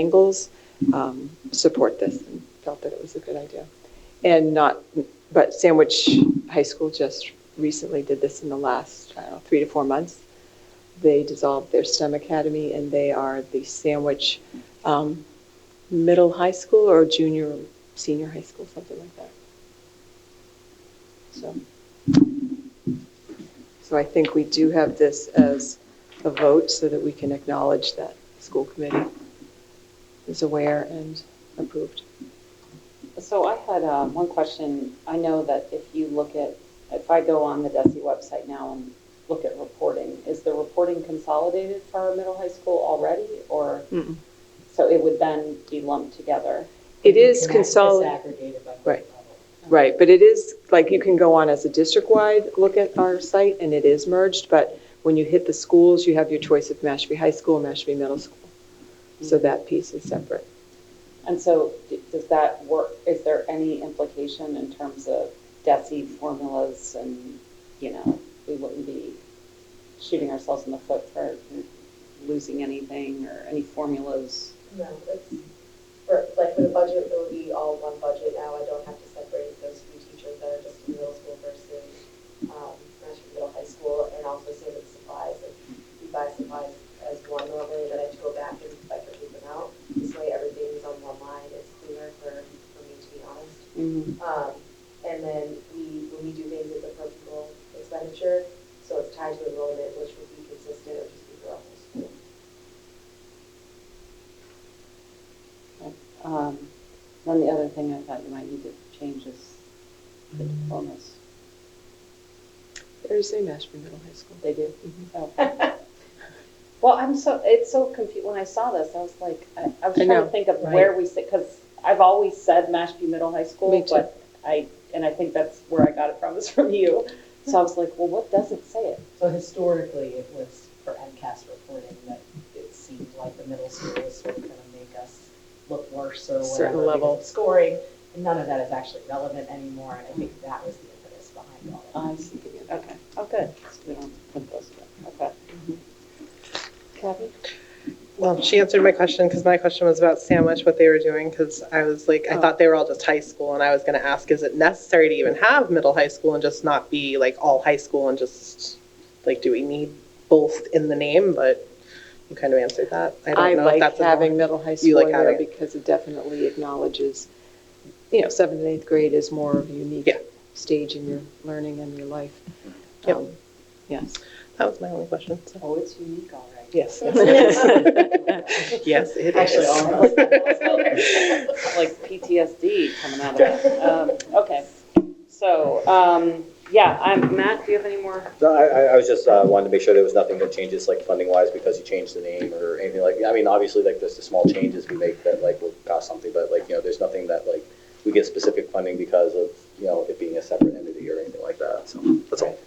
angles um, support this and felt that it was a good idea. And not, but Sandwich High School just recently did this in the last, I don't know, three to four months. They dissolved their STEM academy and they are the Sandwich um, Middle High School or Junior, Senior High School, something like that. So, so I think we do have this as a vote so that we can acknowledge that school committee is aware and approved. So I had uh, one question. I know that if you look at, if I go on the DESI website now and look at reporting, is the reporting consolidated for our middle high school already? Or, Mm-mm. so it would then be lumped together? It is consolidated, consolidated. Right. right, but it is, like, you can go on as a district-wide look at our site, and it is merged, but when you hit the schools, you have your choice of Mashpee High School, Mashpee Middle School. So that piece is separate. And so d- does that work, is there any implication in terms of DESI formulas and, you know, we wouldn't be shooting ourselves in the foot for losing anything or any formulas? No, it's, for, like, for the budget, it would be all one budget now, I don't have to separate those few teachers that are just in middle school versus, um, Mashpee Middle High School, and also saving supplies, if you buy supplies as one normally, then I have to go back and like repeat them out, this way everything's on one line, it's cleaner for, for me to be honest. Um, and then we, when we do things with the principal expenditure, so it's tied to enrollment, which would be consistent, it would just be throughout the school. Um, Then the other thing I thought you might need to change is the diplomas. There is a Mashpee Middle High School. They do? Mhm. Oh. Well, I'm so, it's so confused, when I saw this, I was like, I I was I trying to know, think of where we sit, because I've always said Mashpee Middle High Me School, too. but I, and I think that's where I got it from, is from you. So I was like, well, what doesn't say it? So historically, it was for MCAS reporting that it seemed like the middle school was sort of going to make us look worse or whatever. Certain because level. of Scoring, and none of that is actually relevant anymore, and I think that was the impetus behind all that. I see, okay, oh, good. So we don't put those in. Okay. Mm-hmm. Kathy? Well, she answered my question because my question was about sandwich, what they were doing, because I was like, I thought they were all just high school, and I was going to ask, is it necessary to even have middle high school and just not be like all high school and just like, do we need both in the name? But you kind of answered that. I don't I know if like that's a- having middle high school like in there having because it definitely acknowledges, you know, seventh and eighth grade is more of a unique Yeah. stage in your learning and your life. Yep. Um, Yes. That was my only question. so. Oh, it's unique, all right. Yes. yes, it is. Actually, all of us. like PTSD coming out of it. Um, Okay, so, um, yeah, I'm, Matt, do you have any more? No, I, I- I was just, uh, wanted to make sure there was nothing that changes, like, funding-wise, because you changed the name or anything like, I mean, obviously, like, there's the small changes we make that, like, will cost something, but, like, you know, there's nothing that, like, we get specific funding because of, you know, it being a separate entity or anything like that, so, that's all.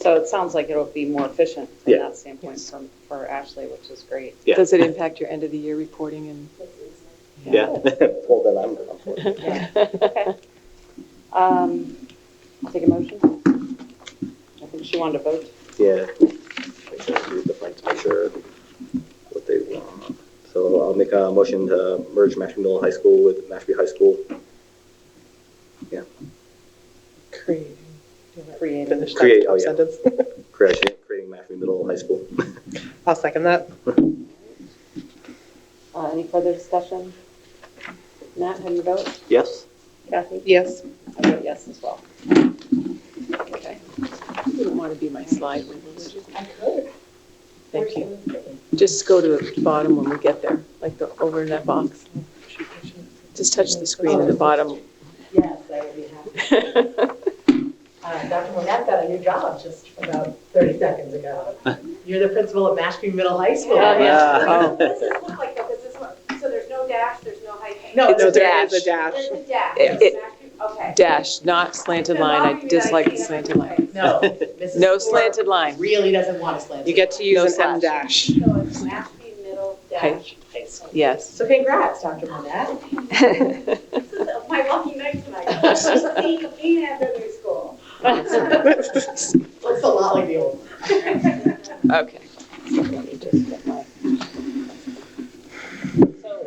So it sounds like it'll be more efficient from Yeah. that standpoint for, for Ashley, which is great. Yeah. Does it impact your end of the year reporting and? That's easy. Yeah. Well, then I'm, I'm for it. Yeah, okay. Um, Take a motion? I think she wanted to vote. Yeah. Make sure I read the print to make sure what they want. So I'll make a motion to merge Mashpee Middle High School with Mashpee High School. Creating. Creating. Finish that Create, top oh, yeah. sentence. Creation, creating Mashpee Middle High School. I'll second that. Uh, Any further discussion? Matt, how do you vote? Yes? Kathy? Yes. I vote yes as well. Okay. You don't want to be my slide window, would you? I could. Thank you. Just go to the bottom when we get there, like the, over in that box. Just touch the screen at the bottom. Yes, I would be happy. Uh, Dr. Monette got a new job just about 30 seconds ago. You're the principal at Mashpee Middle High School. Oh, yeah. Oh. This is look like, though, 'cause this one, so there's no dash, there's no hyphen. No, It's no, a there is dash. a dash. There's a dash. It- It's actually- Okay. Dash, not slanted line. I dislike the slanted line. No. Mrs. No Ford slanted line. Really doesn't want a slanted. You get to No use slash. an M dash. So it's Mashpee middle dash high school. Yes. So congrats, Dr. Monette. This is my lucky night tonight. Being, being at the new school. Looks a lot like the old. Okay. Let me just get my